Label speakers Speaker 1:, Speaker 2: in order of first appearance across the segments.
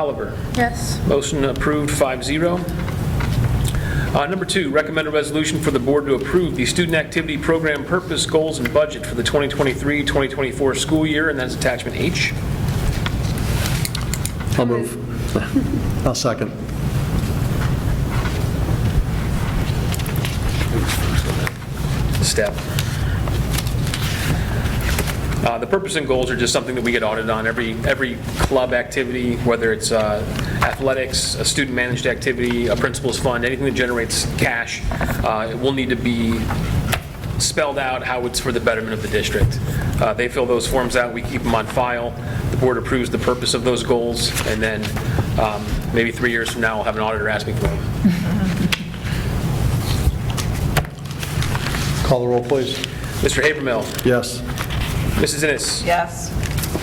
Speaker 1: Oliver.
Speaker 2: Yes.
Speaker 1: Motion approved 5-0. Uh, Number two, recommend a resolution for the board to approve the student activity program purpose, goals, and budget for the 2023-2024 school year, and that's attachment H.
Speaker 3: I'll move. I'll second.
Speaker 1: step. Uh, The purpose and goals are just something that we get audited on, every, every club activity, whether it's uh, athletics, a student-managed activity, a principal's fund, anything that generates cash, uh, it will need to be spelled out how it's for the betterment of the district. Uh, They fill those forms out, we keep them on file, the board approves the purpose of those goals, and then um, maybe three years from now, we'll have an auditor ask me for them.
Speaker 3: Call the roll, please.
Speaker 1: Mr. Habermill,
Speaker 3: Yes.
Speaker 1: Mrs. Innes,
Speaker 4: Yes.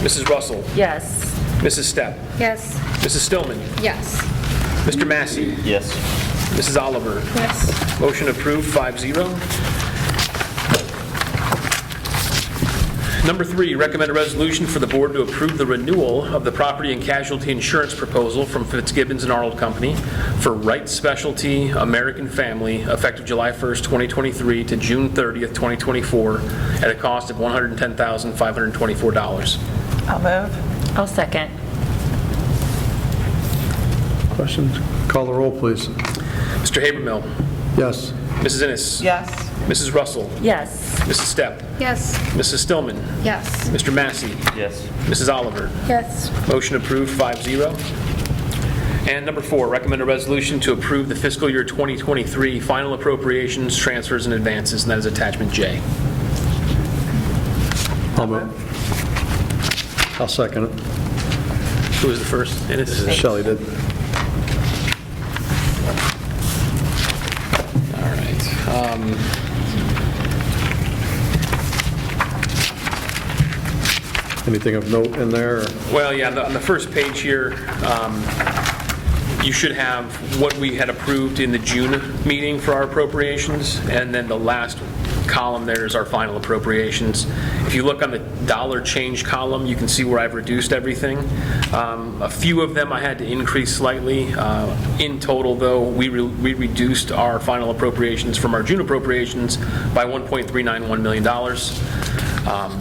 Speaker 1: Mrs. Russell,
Speaker 2: Yes.
Speaker 1: Mrs. Stepp,
Speaker 2: Yes.
Speaker 1: Mrs. Stillman,
Speaker 2: Yes.
Speaker 1: Mr. Massey,
Speaker 5: Yes.
Speaker 1: Mrs. Oliver.
Speaker 2: Yes.
Speaker 1: Motion approved, 5-0. Number three, recommend a resolution for the board to approve the renewal of the property and casualty insurance proposal from Fitzgibbons and Arnold Company for Wright Specialty American Family, effective July 1st, 2023 to June 30th, 2024, at a cost of $110,524.
Speaker 4: I'll move.
Speaker 2: I'll second.
Speaker 3: Questions? Call the roll, please.
Speaker 1: Mr. Habermill,
Speaker 3: Yes.
Speaker 1: Mrs. Innes,
Speaker 4: Yes.
Speaker 1: Mrs. Russell,
Speaker 2: Yes.
Speaker 1: Mrs. Stepp,
Speaker 2: Yes.
Speaker 1: Mrs. Stillman,
Speaker 2: Yes.
Speaker 1: Mr. Massey,
Speaker 5: Yes.
Speaker 1: Mrs. Oliver.
Speaker 2: Yes.
Speaker 1: Motion approved, 5-0. And number four, recommend a resolution to approve the fiscal year 2023 final appropriations, transfers, and advances, and that is attachment J.
Speaker 3: I'll move. I'll second it.
Speaker 1: Who was the first? Innis?
Speaker 3: Shelley did.
Speaker 1: All right. Um,
Speaker 3: Anything of note in there? or-
Speaker 1: Well, yeah, the- on the first page here, um, you should have what we had approved in the June meeting for our appropriations, and then the last column there is our final appropriations. If you look on the dollar change column, you can see where I've reduced everything. Um, A few of them I had to increase slightly. Uh, In total, though, we re- we reduced our final appropriations from our June appropriations by $1.391 million. Um,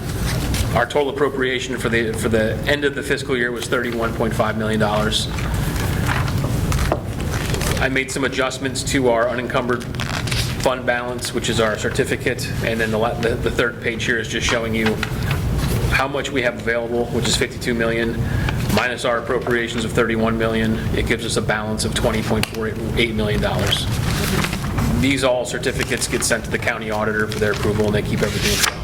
Speaker 1: our total appropriation for the, for the end of the fiscal year was $31.5 million. I made some adjustments to our unencumbered fund balance, which is our certificate, and then the, la- the the third page here is just showing you how much we have available, which is 52 million, minus our appropriations of 31 million. It gives us a balance of $20.48 million. These all certificates get sent to the county auditor for their approval, and they keep everything in track.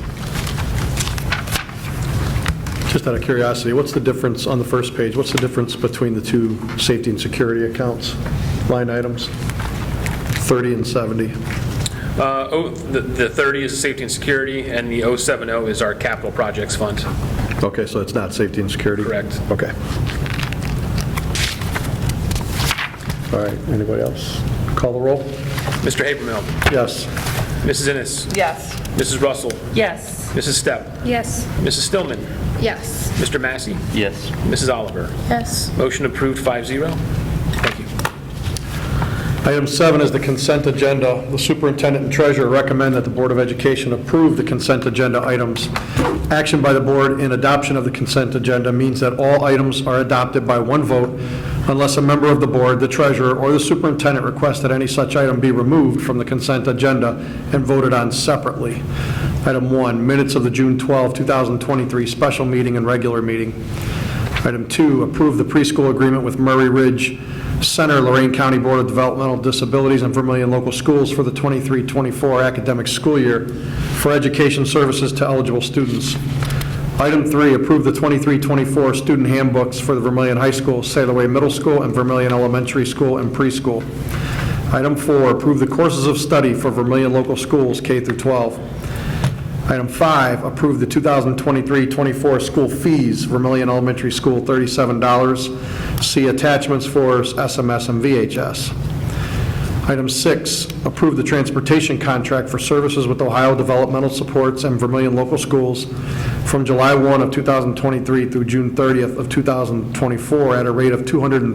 Speaker 3: Just out of curiosity, what's the difference on the first page? What's the difference between the two safety and security accounts, line items? 30 and 70.
Speaker 1: Uh, oh, The the 30 is safety and security, and the 070 is our capital projects fund.
Speaker 3: Okay, so it's not safety and security?
Speaker 1: Correct.
Speaker 3: Okay. All right, anybody else? Call the roll?
Speaker 1: Mr. Habermill,
Speaker 3: Yes.
Speaker 1: Mrs. Innes,
Speaker 4: Yes.
Speaker 1: Mrs. Russell,
Speaker 2: Yes.
Speaker 1: Mrs. Stepp,
Speaker 2: Yes.
Speaker 1: Mrs. Stillman,
Speaker 2: Yes.
Speaker 1: Mr. Massey,
Speaker 5: Yes.
Speaker 1: Mrs. Oliver.
Speaker 2: Yes.
Speaker 1: Motion approved, 5-0. Thank you.
Speaker 3: Item seven is the consent agenda. The superintendent and treasurer recommend that the Board of Education approve the consent agenda items. Action by the board in adoption of the consent agenda means that all items are adopted by one vote unless a member of the board, the treasurer, or the superintendent requests that any such item be removed from the consent agenda and voted on separately. Item one, minutes of the June 12, 2023 special meeting and regular meeting. Item two, approve the preschool agreement with Murray Ridge Center, Lorraine County Board of Developmental Disabilities and Vermillion Local Schools for the 23-24 academic school year for education services to eligible students. Item three, approve the 23-24 student handbooks for the Vermillion High School, Sailor Way Middle School, and Vermillion Elementary School and preschool. Item four, approve the courses of study for Vermillion Local Schools, K through 12. Item five, approve the 2023-24 school fees, Vermillion Elementary School, $37. See attachments for SMS and VHS. Item six, approve the transportation contract for services with Ohio Developmental Supports and Vermillion Local Schools from July 1 of 2023 through June 30th of 2024 at a rate of 200.